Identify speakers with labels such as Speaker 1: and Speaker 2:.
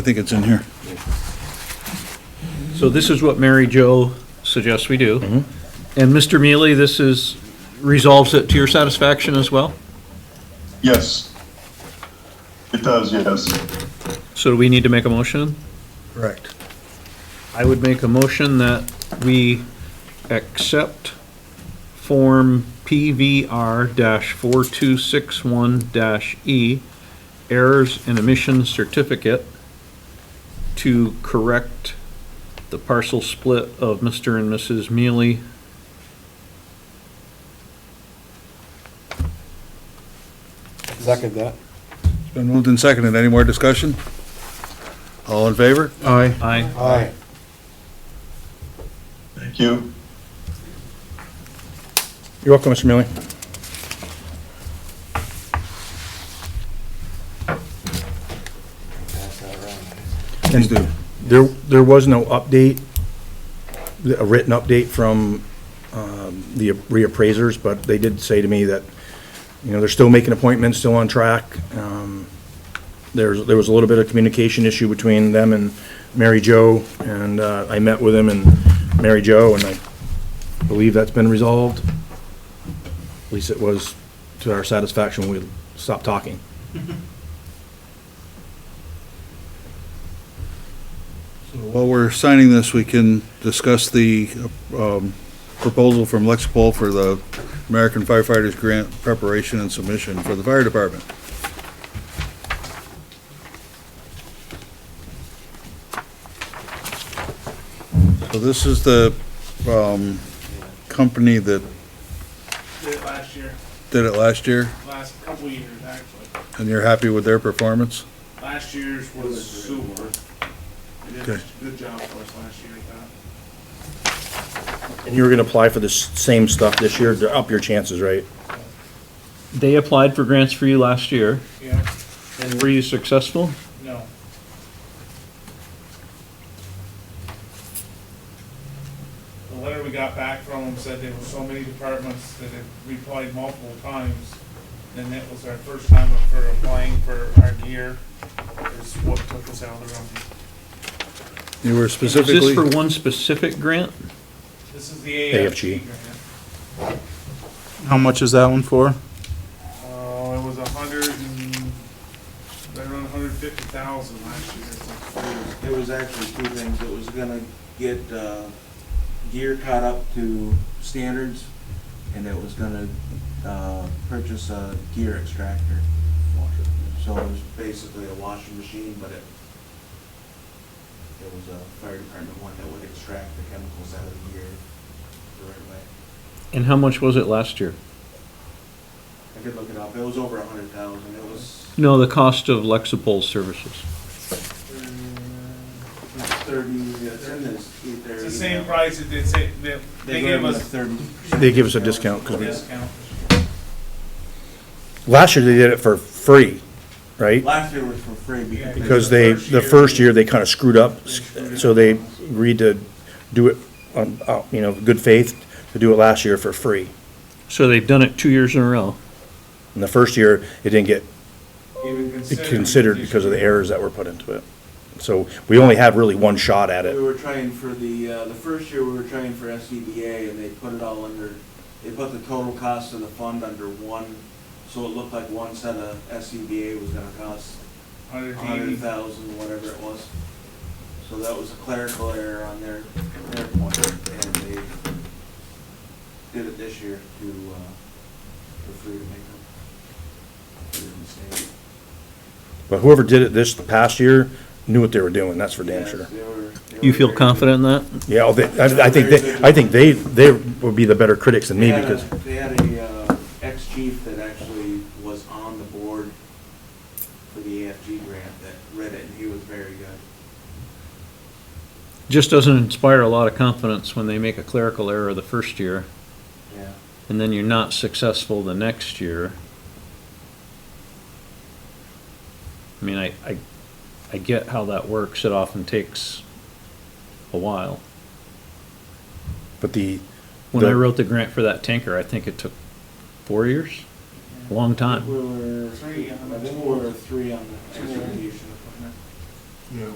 Speaker 1: I think it's in here.
Speaker 2: So this is what Mary Jo suggests we do. And Mr. Mealy, this is, resolves it to your satisfaction as well?
Speaker 3: Yes. It does, yes.
Speaker 2: So do we need to make a motion?
Speaker 4: Correct.
Speaker 2: I would make a motion that we accept Form PVR-4261-E E, Errors and Emission Certificate to correct the parcel split of Mr. and Mrs. Mealy.
Speaker 5: Second that.
Speaker 1: It's been moved and seconded. Any more discussion? All in favor?
Speaker 2: Aye. Aye.
Speaker 5: Aye.
Speaker 3: Thank you.
Speaker 4: You're welcome, Mr. Mealy.
Speaker 1: Please do.
Speaker 4: There, there was no update, a written update from um, the reappraisers, but they did say to me that, you know, they're still making appointments, still on track. Um, There's, there was a little bit of communication issue between them and Mary Jo, and uh, I met with him and Mary Jo, and I believe that's been resolved. At least it was to our satisfaction, when we stopped talking.
Speaker 1: While we're signing this, we can discuss the um, proposal from Lexipol for the American Firefighters Grant preparation and submission for the fire department. So this is the um, company that
Speaker 6: did it last year,
Speaker 1: did it last year,
Speaker 6: last couple of years actually.
Speaker 1: and you're happy with their performance?
Speaker 6: Last year's was sewer. They did
Speaker 1: Okay.
Speaker 6: a good job for us last year, I thought.
Speaker 4: And you were gonna apply for the s- same stuff this year, to up your chances, right?
Speaker 2: They applied for grants for you last year.
Speaker 6: Yeah,
Speaker 2: And were you successful?
Speaker 6: no. The letter we got back from them said there were so many departments that had replied multiple times. And that was our first time for applying for our gear, is what took us out of the running.
Speaker 1: You were
Speaker 2: Is this for
Speaker 1: specifically,
Speaker 2: one specific grant?
Speaker 6: This is the
Speaker 4: AFG.
Speaker 6: AFG grant.
Speaker 7: How much is that one for?
Speaker 6: Uh, it was a hundred and, right around a hundred fifty thousand last year, it's like three.
Speaker 8: It was actually two things. It was gonna get, uh, gear caught up to standards, and it was gonna, uh, purchase a gear extractor. So it was basically a washing machine, but it, it was a fire department one that would extract the chemicals out of the gear the right way.
Speaker 2: And how much was it last year?
Speaker 8: I could look it up. It was over a hundred thousand. It was
Speaker 2: No, the cost of Lexipol services.
Speaker 8: thirty, it's in this, either.
Speaker 6: It's the same price that they say, that they gave us
Speaker 8: Thirty.
Speaker 4: They give us a discount,
Speaker 6: a
Speaker 4: because we,
Speaker 6: discount.
Speaker 4: last year they did it for free, right?
Speaker 8: Last year was for free because.
Speaker 4: Because they, the first year, they kind of screwed up, so they agreed to do it on, uh, you know, good faith, to do it last year for free.
Speaker 2: So they've done it two years in a row.
Speaker 4: And the first year, it didn't get
Speaker 6: Even considering.
Speaker 4: considered because of the errors that were put into it. So we only had really one shot at
Speaker 8: We
Speaker 4: it.
Speaker 8: were trying for the, uh, the first year, we were trying for SCBA, and they put it all under, they put the total cost of the fund under one, so it looked like one set of SCBA was gonna cost a
Speaker 6: Hundred
Speaker 8: hundred
Speaker 6: eighty,
Speaker 8: thousand, whatever it was. So that was a clerical error on their, their point, and they did it this year to, uh, for free to make up. for their mistake.
Speaker 4: But whoever did it this past year knew what they were doing, that's for damn
Speaker 8: Yes,
Speaker 4: sure.
Speaker 8: they were- they
Speaker 2: You
Speaker 8: were
Speaker 2: feel
Speaker 8: very good.
Speaker 2: confident in that?
Speaker 4: Yeah, oh, they- I I think, they. I think they, they would be the better critics than me,
Speaker 8: They had a-
Speaker 4: because
Speaker 8: They had a, uh, ex-chief that actually was on the board for the AFG grant that read it, and he was very good.
Speaker 2: Just doesn't inspire a lot of confidence when they make a clerical error the first year,
Speaker 8: Yeah.
Speaker 2: and then you're not successful the next year. I mean, I, I, I get how that works. It often takes a while.
Speaker 4: But the,
Speaker 2: When I
Speaker 4: The-
Speaker 2: wrote the grant for that tanker, I think it took four years? A Long time.
Speaker 8: We were,
Speaker 6: Three on the
Speaker 8: I think we were three on the execution.